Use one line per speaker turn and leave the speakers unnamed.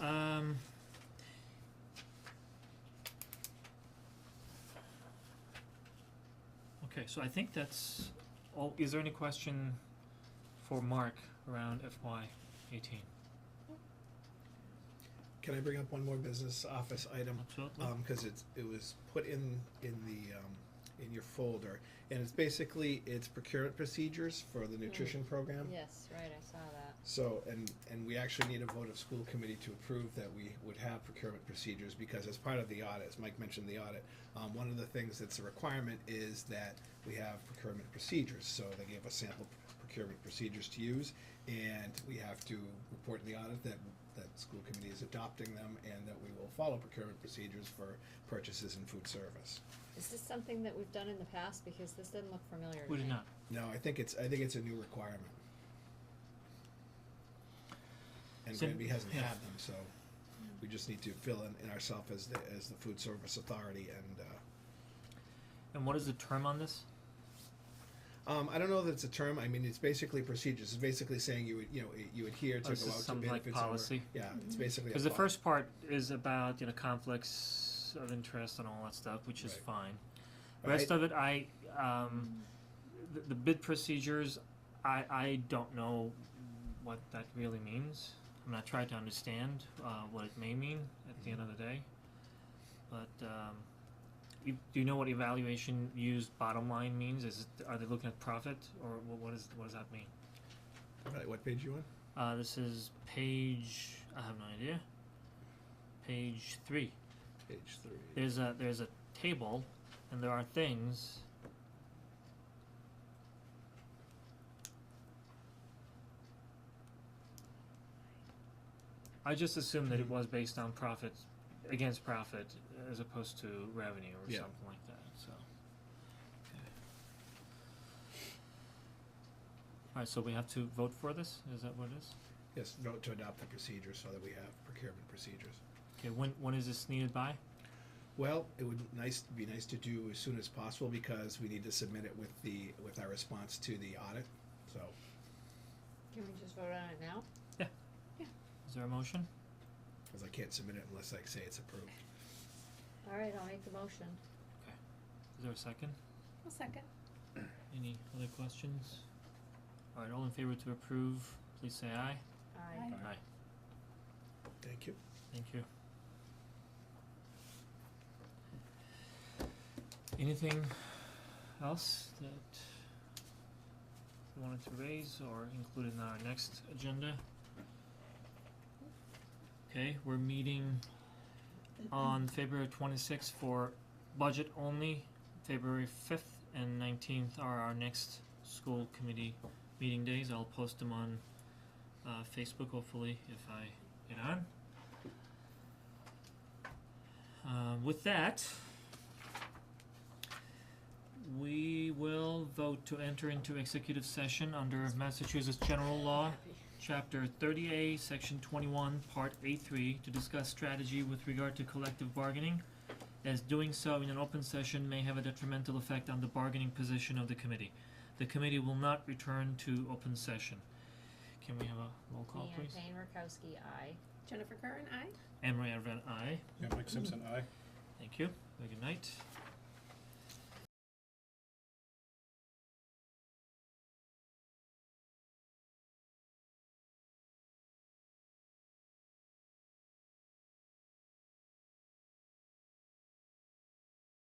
Um, Okay, so I think that's all, is there any question for Mark around FY eighteen?
Can I bring up one more business office item?
Absolutely.
Um, cause it's, it was put in, in the, um, in your folder, and it's basically, it's procurement procedures for the nutrition program.
Yes, right, I saw that.
So, and, and we actually need a vote of school committee to approve that we would have procurement procedures, because as part of the audit, as Mike mentioned the audit, um, one of the things that's a requirement is that we have procurement procedures, so they gave us sample procurement procedures to use, and we have to report in the audit that, that school committee is adopting them, and that we will follow procurement procedures for purchases in food service.
Is this something that we've done in the past? Because this doesn't look familiar to
We
me.
did not.
No, I think it's, I think it's a new requirement. And
So-
Granby hasn't
yeah.
had them, so we just need to fill in, in ourselves as the, as the food service authority and, uh,
And what is the term on this?
um, I don't know that it's a term, I mean, it's basically procedures, it's basically saying you, would- you know, you adhere to
Oh,
go out
this
to
is
bid if it's over.
something like policy?
Yeah, it's basically a
Because the
pol-
first part is about, you know, conflicts of interest and all that stuff, which is
Right.
fine.
But
Rest
I-
of it, I, um, the, the bid procedures, I, I don't know what that really means. I'm not trying to understand, uh, what it may mean at the end of the day. But, um, you, do you know what evaluation used bottom line means? Is it, are they looking at profit or what, what is, what does that mean?
Right, what page you on?
Uh, this is page. I have no idea. Page three.
Page three.
There's a there's a table, and there are things. I just assumed that it was based on profit, against profit, as opposed to revenue or
Yeah.
something like that. So. Okay. All right, so we have to vote for this. Is that what it is?
Yes, vote to adopt the procedures so that we have procurement procedures.
Okay, when when is this needed by?
Well, it would nice, be nice to do as soon as possible because we need to submit it with the, with our response to the audit, so.
Can we just vote on it now?
Is there a motion?
Cause I can't submit it unless I say it's approved.
All right, I'll make the motion.
Is there a second?
I'll second.
Any other questions? All right, all in favor to approve, please say aye.
Aye.
Aye.
Thank you.
Thank you. Anything else that you wanted to raise or include in our next agenda? Okay, we're meeting on February twenty-sixth for budget only. February fifth and nineteenth are our next school committee meeting days. I'll post them on uh Facebook hopefully if I get on. Um, with that, we will vote to enter into executive session under Massachusetts General Law, Chapter 30A, Section 21, Part A3, to discuss strategy with regard to collective bargaining, as doing so in an open session may have a detrimental effect on the bargaining position of the committee. The committee will not return to open session. Can we have a roll call,
Leanne
please?
Payne Rakowski, aye.
Jennifer Curran, aye.
Anne Marie Everett, aye.
Yeah, Mike Simpson, aye.
Thank you. Very good night.